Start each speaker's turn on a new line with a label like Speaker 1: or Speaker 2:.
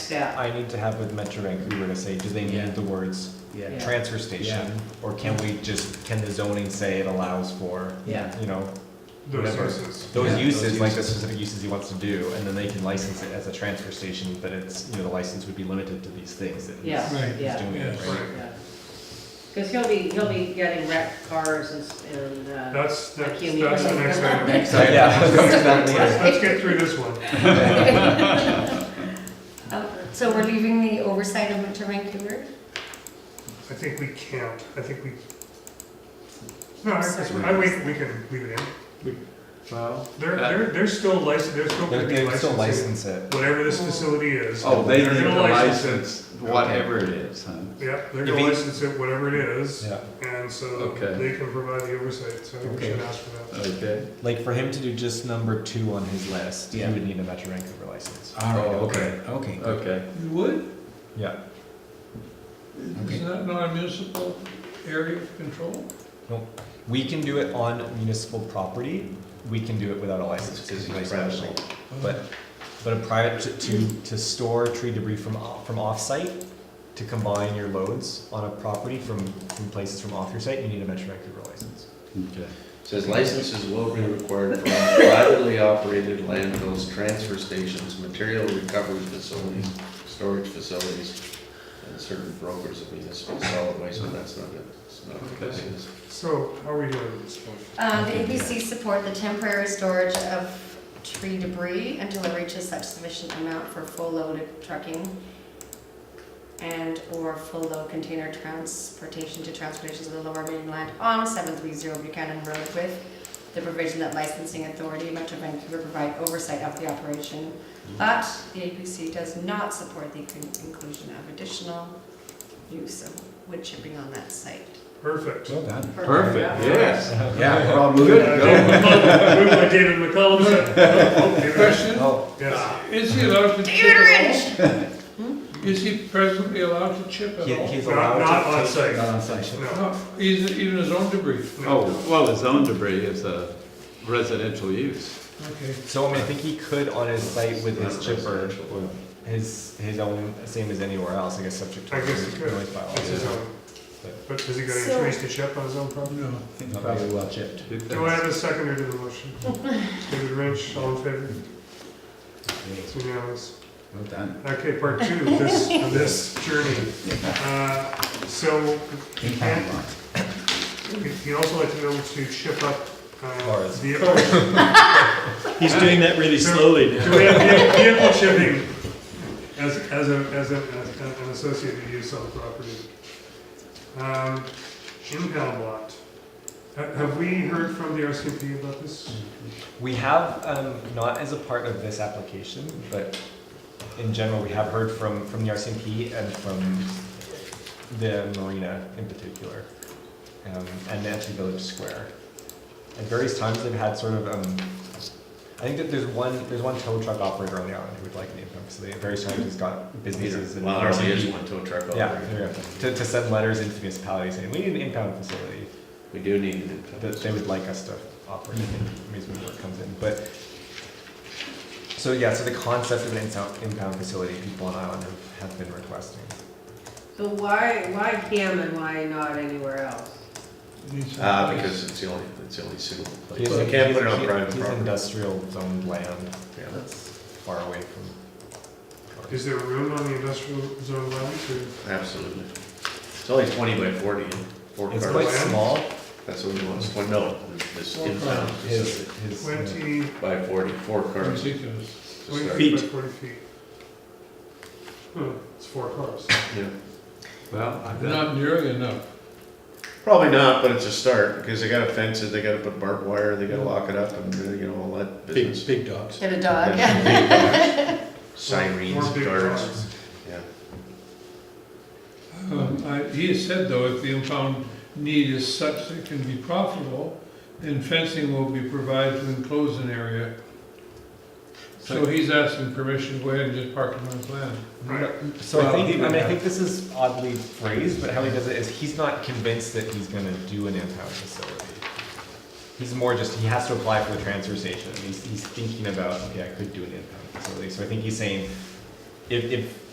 Speaker 1: step.
Speaker 2: I need to have with Metrorec, we were to say, do they
Speaker 3: Yeah.
Speaker 2: need the words
Speaker 3: Yeah.
Speaker 1: Yeah.
Speaker 2: transfer station? Or can we just, can the zoning say it allows for,
Speaker 3: Yeah.
Speaker 2: you know,
Speaker 4: Those
Speaker 2: Whatever.
Speaker 4: uses.
Speaker 2: those
Speaker 3: Yeah, those
Speaker 2: uses, like the
Speaker 3: uses.
Speaker 2: specific uses he wants to do, and then they can license it as a transfer station, but it's, you know, the license would be limited to these things that he's-
Speaker 1: Yeah,
Speaker 4: Right.
Speaker 2: he's
Speaker 1: yeah,
Speaker 2: doing, it,
Speaker 4: Yeah,
Speaker 2: right?
Speaker 4: right.
Speaker 1: yeah. Cause he'll be, he'll be getting wrecked cars and, s- and, uh,
Speaker 4: That's, that's,
Speaker 1: Can we
Speaker 4: that's the
Speaker 1: put
Speaker 4: next
Speaker 1: them
Speaker 4: item.
Speaker 1: on?
Speaker 4: Let's,
Speaker 2: So, yeah, let's come to that later.
Speaker 4: let's get through this one.
Speaker 5: Oh, So we're leaving the oversight of Winter Vancouver?
Speaker 4: I think we can't, I think we. No, I,
Speaker 5: Sorry.
Speaker 4: I, we, we can leave it in.
Speaker 6: Well,
Speaker 4: They're,
Speaker 6: That-
Speaker 4: they're, they're still licensed, they're still
Speaker 2: They
Speaker 4: gonna
Speaker 2: they
Speaker 4: be
Speaker 2: would still
Speaker 4: licensing
Speaker 2: license it.
Speaker 4: whatever this facility is.
Speaker 6: oh, they
Speaker 4: They're
Speaker 6: need
Speaker 4: gonna
Speaker 6: to
Speaker 4: license it.
Speaker 6: license whatever it is, huh?
Speaker 4: Yeah, they're
Speaker 2: If
Speaker 4: gonna
Speaker 2: he-
Speaker 4: license it, whatever it is,
Speaker 2: Yeah.
Speaker 4: and so
Speaker 6: Okay.
Speaker 4: they can provide the oversight, so I think we
Speaker 2: Okay.
Speaker 4: should ask for that.
Speaker 6: Okay.
Speaker 2: Like for him to do just number two on his list, he
Speaker 3: Yeah.
Speaker 2: would need a Metro Vancouver license.
Speaker 3: All right,
Speaker 6: Oh,
Speaker 3: okay, okay. good.
Speaker 6: Okay.
Speaker 7: You would?
Speaker 2: Yeah.
Speaker 3: Okay.
Speaker 7: Is that not a municipal area of control?
Speaker 2: We can do it on municipal property. We can do it without a license because it's residential. But but a private to, to to store tree debris from off, from offsite to combine your loads on a property from from places from off your site, you need a Metro Vancouver license.
Speaker 6: Okay.
Speaker 8: Says licenses will be required from privately operated landfills, transfer stations, material recovery facilities, storage facilities, and certain brokers of municipal solid waste, but that's not it. It's not what this is.
Speaker 4: So how are we doing at this point?
Speaker 5: Uh, The ABC support the temporary storage of tree debris until it reaches such sufficient amount for full load of trucking and/or full load container transportation to transportation of the lower mainland on 730 Buchanan Road with the provision that licensing authority Metro Vancouver provide oversight of the operation. But the ABC does not support the con- inclusion of additional use of wood chipping on that site.
Speaker 4: Perfect.
Speaker 2: Well done.
Speaker 6: Perfect, yes.
Speaker 3: Yeah.
Speaker 6: Well, good to
Speaker 4: David
Speaker 6: go.
Speaker 4: McCollum- Moved by David McCollum, second- oh, David Rich.
Speaker 7: Question,
Speaker 2: Oh,
Speaker 6: Ah.
Speaker 4: Yes,
Speaker 7: is he allowed to chip
Speaker 5: David
Speaker 7: at
Speaker 5: Rich!
Speaker 7: all? Hmm? Is he presently allowed to chip at
Speaker 2: he,
Speaker 7: all?
Speaker 2: he's
Speaker 4: not,
Speaker 2: allowed
Speaker 4: not
Speaker 2: to
Speaker 4: on
Speaker 2: take-
Speaker 4: site,
Speaker 6: Not on site.
Speaker 4: no.
Speaker 7: No, he's- even his own debris,
Speaker 6: Oh, well, his own debris is a residential use.
Speaker 7: okay.
Speaker 2: So I mean, I think he could on his site with his
Speaker 8: Not
Speaker 2: chipper,
Speaker 8: residential.
Speaker 2: his his own same as anywhere else. I guess subject to
Speaker 4: I guess he could.
Speaker 2: noise bylaw.
Speaker 4: That's his own. But has he got any
Speaker 5: So-
Speaker 4: trees to chip on his own property?
Speaker 7: No.
Speaker 2: probably
Speaker 6: well chipped.
Speaker 4: Do I have a seconder to the motion? David Rynch, all in favor? It's unanimous.
Speaker 6: Well done.
Speaker 4: Okay, part two of this, of this journey. Uh, So
Speaker 6: He
Speaker 4: can't he'd also like to be able to chip up uh,
Speaker 2: Cars.
Speaker 4: vehicles.
Speaker 3: He's doing that really slowly
Speaker 4: Do we have vehi- vehicle shipping as, as a, as a, as a- an associated use on the property? Um, Impound lot. Ha- Have we heard from the RCMP about this?
Speaker 2: We have, um, not as a part of this application, but in general, we have heard from, from the RCMP and from the marina in particular, um, and Nancy Village Square. At various times, they've had sort of, um, I think that there's one, there's one tow truck operator on the island who would like an impound facility. At various times, he's got businesses and
Speaker 8: Well, there only is
Speaker 2: RCMP.
Speaker 8: one tow truck over
Speaker 2: Yeah,
Speaker 8: there.
Speaker 2: there you go. to, to send letters into municipalities saying, we need an impound facility
Speaker 8: We do need an impound.
Speaker 2: that they would like us to operate in amusement work comes in, but. So yeah, so the concept of an insound- impound facility, people on island have- have been requesting.
Speaker 1: So why, why him and why not anywhere else?
Speaker 8: Uh, because it's the only, it's the only suitable place.
Speaker 2: He's-
Speaker 8: You can't
Speaker 2: he's-
Speaker 8: put it on
Speaker 2: he-
Speaker 8: private
Speaker 2: he's
Speaker 8: property.
Speaker 2: industrial zoned land,
Speaker 8: Yeah.
Speaker 2: that's far away from. cars.
Speaker 4: Is there room on the industrial zone land to,
Speaker 8: Absolutely. It's only twenty by forty, four
Speaker 2: It's
Speaker 8: cars.
Speaker 2: quite
Speaker 4: land?
Speaker 2: small,
Speaker 8: That's what we want, it's one, no, this impound
Speaker 2: his,
Speaker 8: facility
Speaker 2: his.
Speaker 4: twenty,
Speaker 8: by forty, four cars. to
Speaker 7: Ridiculous.
Speaker 4: twenty
Speaker 8: start.
Speaker 4: feet by forty feet? Hmm, it's four cars.
Speaker 8: Yeah.
Speaker 6: Well, I bet.
Speaker 7: Not nearly enough.
Speaker 8: Probably not, but it's a start, because they gotta fence it, they gotta put barbed wire, they gotta lock it up, and, uh, you know, all that business.
Speaker 7: Big, big dogs.
Speaker 5: Get a dog, yeah.
Speaker 4: More
Speaker 8: uh, Sirens,
Speaker 4: big
Speaker 8: guards,
Speaker 4: cars.
Speaker 8: yeah.
Speaker 7: Um, I- He has said, though, if the impound need is such that it can be profitable, then fencing will be provided to enclose an area. So he's asking permission to go ahead and just park it on his land.
Speaker 4: Right.
Speaker 2: So I
Speaker 6: Well,
Speaker 2: think, I mean, I
Speaker 6: yeah.
Speaker 2: think this is oddly phrased, but how he does it is he's not convinced that he's gonna do an impound facility. He's more just, he has to apply for the transfer station, he's, he's thinking about, okay, I could do an impound facility, so I think he's saying, if, if,